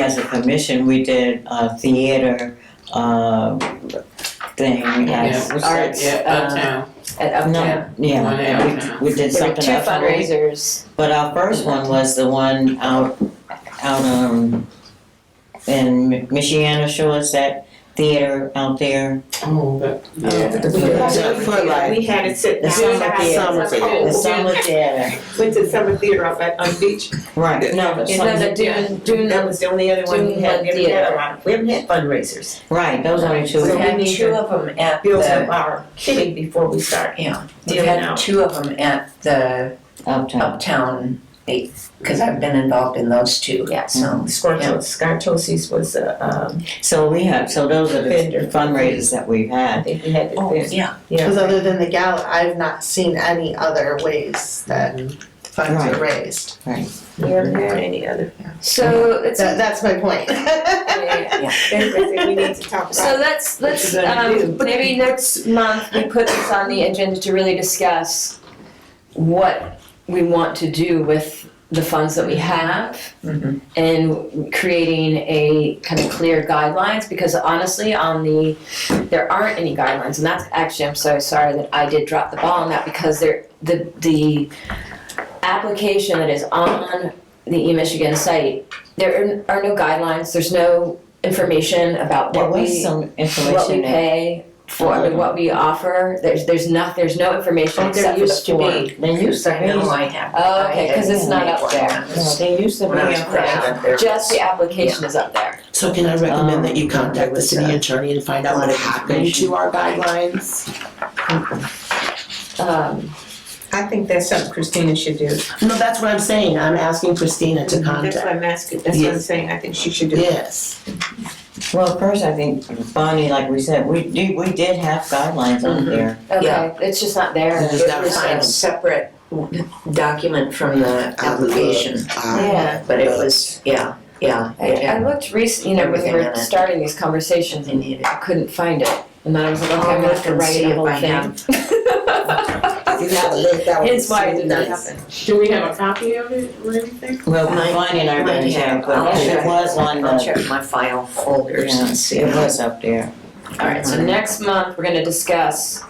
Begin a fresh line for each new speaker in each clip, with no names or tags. As a commission, we did a theater, uh, thing as
Yeah, what's that?
arts.
Yeah,
uh,
uptown.
at
No,
Uptown.
yeah,
One
and
out.
we, we did
There were
something
two
else.
fundraisers.
But our first one was the one out, out, um, in Michiana Shores, that theater out there.
Oh, but, yeah.
the
We
food.
had
So,
it
for like-
We had it sit
The
down.
summer theater.
Summer
The summer theater,
Went to summer theater up at, on beach.
right, no,
And
some-
then the
yeah.
Dune, Dune,
That was the only other one we had. We haven't had a lot, we haven't had fundraisers.
right, those are the two.
So
we
we
had
need
two
to
of them at
Build up
the,
our kitty before we start
yeah, we
dealing
had
out.
two of them at the
Uptown,
Uptown eight, because I've been involved in those two, yeah, so.
Scorcho, Scott Tosi's was, uh, um,
so we have, so those are the
Vendor.
fundraisers that we've
I
had.
think we had
Oh,
it there.
yeah,
Because
Yeah.
other than the gala, I've not seen any other ways that
Mm-hmm.
funds are raised.
We haven't had any other.
So let's,
That, that's my point.
yeah.
Everything we need to talk
so
about.
let's,
What
let's,
you gonna
um,
do?
maybe next month, we put this on the agenda to really discuss what we want to do with the funds that we have
Mm-hmm.
Mhm.
and creating a kind of clear guidelines, because honestly, on the, there aren't any guidelines, and that's, actually, I'm so sorry that I did drop the ball on that, because there, the, the application that is on the eMichigan site, there are are no guidelines, there's no information about
There
what we
was some
what we
information that,
pay for, I mean, what we offer, there's, there's not, there's no information
Oh, there
except for the
used to
form.
be.
they used to
I know
be,
I have.
Oh, okay, 'cause it's not up there.
no, they used to be
When I was
up there.
growing up, there
Just
was-
the application is up there.
So can I recommend that
Um,
you
there
contact the
was,
city
uh,
attorney and find out what happened to our guidelines?
Um,
I think that's something Christina should do.
No, that's what I'm saying, I'm asking Christina to
That's why
contact.
I'm asking, that's what I'm
Yeah.
saying, I think she should do.
Yes,
Well, first, I think, Bonnie, like we said, we did, we did have guidelines on
Mm-hmm.
Mhm.
there.
Yeah.
okay, it's just not there.
It's just
It
not
was a
final.
separate document from the
I would love,
application,
uh,
Yeah,
but it was, yeah, yeah, it
I, I
had
looked recent, you know, when we
Everything in
were
it.
starting these conversations,
something needed.
I couldn't find it, and then I was like, okay, I'm gonna have to
I'll
write
see
the
if
whole
I
thing.
have-
if you have a list, that would be
Hence why it
so
did not
nice.
happen.
Do we have a copy of it or anything?
Well,
Mine-
Bonnie and I
mine
ran
had-
it, but
I'll
it
check.
was on
I'll
the,
check my file folders
yeah,
and see.
it was up there.
Alright, so next month, we're gonna discuss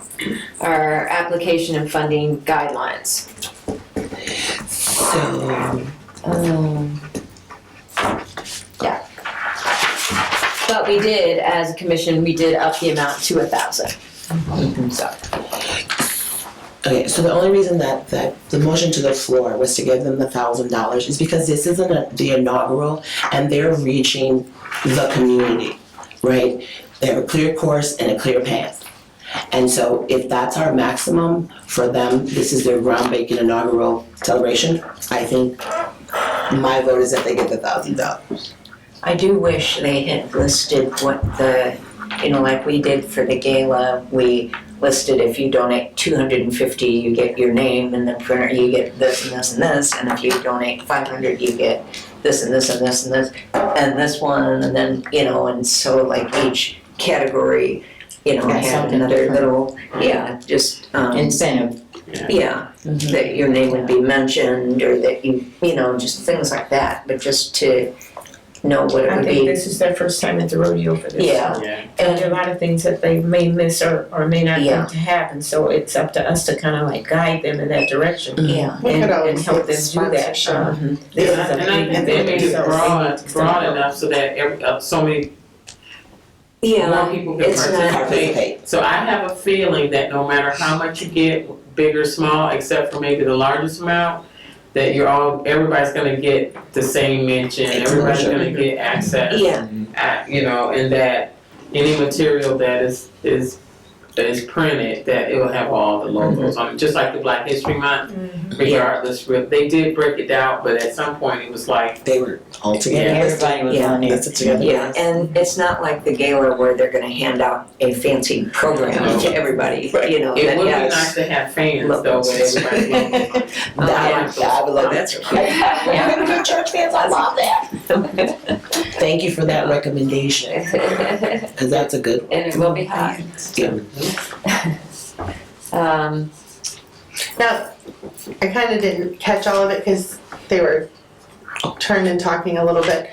our application and funding guidelines.
So,
Um, yeah. But we did, as a commission, we did up the amount to a thousand. So,
okay, so the only reason that, that the motion to the floor was to give them the thousand dollars is because this isn't a- the inaugural and they're reaching the community, right? They have a clear course and a clear path. And so if that's our maximum for them, this is their groundbreaking inaugural celebration, I think my vote is that they get the thousand dollars.
I do wish they had listed what the, you know, like we did for the gala, we listed if you donate two hundred and fifty, you get your name and the printer, you get this and this and this, and if you donate five hundred, you get this and this and this and this, and this one, and then, you know, and so like each category, you know,
Got
had
something
another
different.
little, yeah, just, um,
Incentive,
yeah,
Mm-hmm.
that your name would be mentioned, or that you, you know, just things like that, but just to know what it
I
would be.
think this is their first time at the rodeo for this.
Yeah.
Yeah.
And there are a lot of things that they may miss or, or may not
Yeah.
think to happen, so it's up to us to kind of like guide them in that direction.
Yeah,
We
and,
could
and
always get
help them do that.
sponsorship.
Um, this
And I,
is a
and I
big
think they made
event,
it
so
broad,
it's-
broad enough so that every, uh, so many more
yeah,
people can
it's not-
participate. So I have a feeling that no matter how much you get, big or small, except for maybe the largest amount, that you're all, everybody's gonna get the same mention, everybody's
Exposure.
gonna get access.
yeah,
I- you know, and that any material that is is that is printed, that it will have all the
Mm-hmm.
logos on it, just like the Black History Month. Regardless, re- they did break it out, but at some point it was like,
They were all together.
everybody was
Yeah.
on there.
That's it together.
yeah, and it's not like the gala where they're gonna hand out a fancy program to everybody, you know,
it
that
would be
has.
nice to have fans though, but everybody's logos.
That, I would love that.
good church fans, I love that.
Thank you for that recommendation,
and
because that's a good
it will be hot.
Yeah.
Um,
Now, I kind of didn't catch all of it because they were turned and talking a little bit.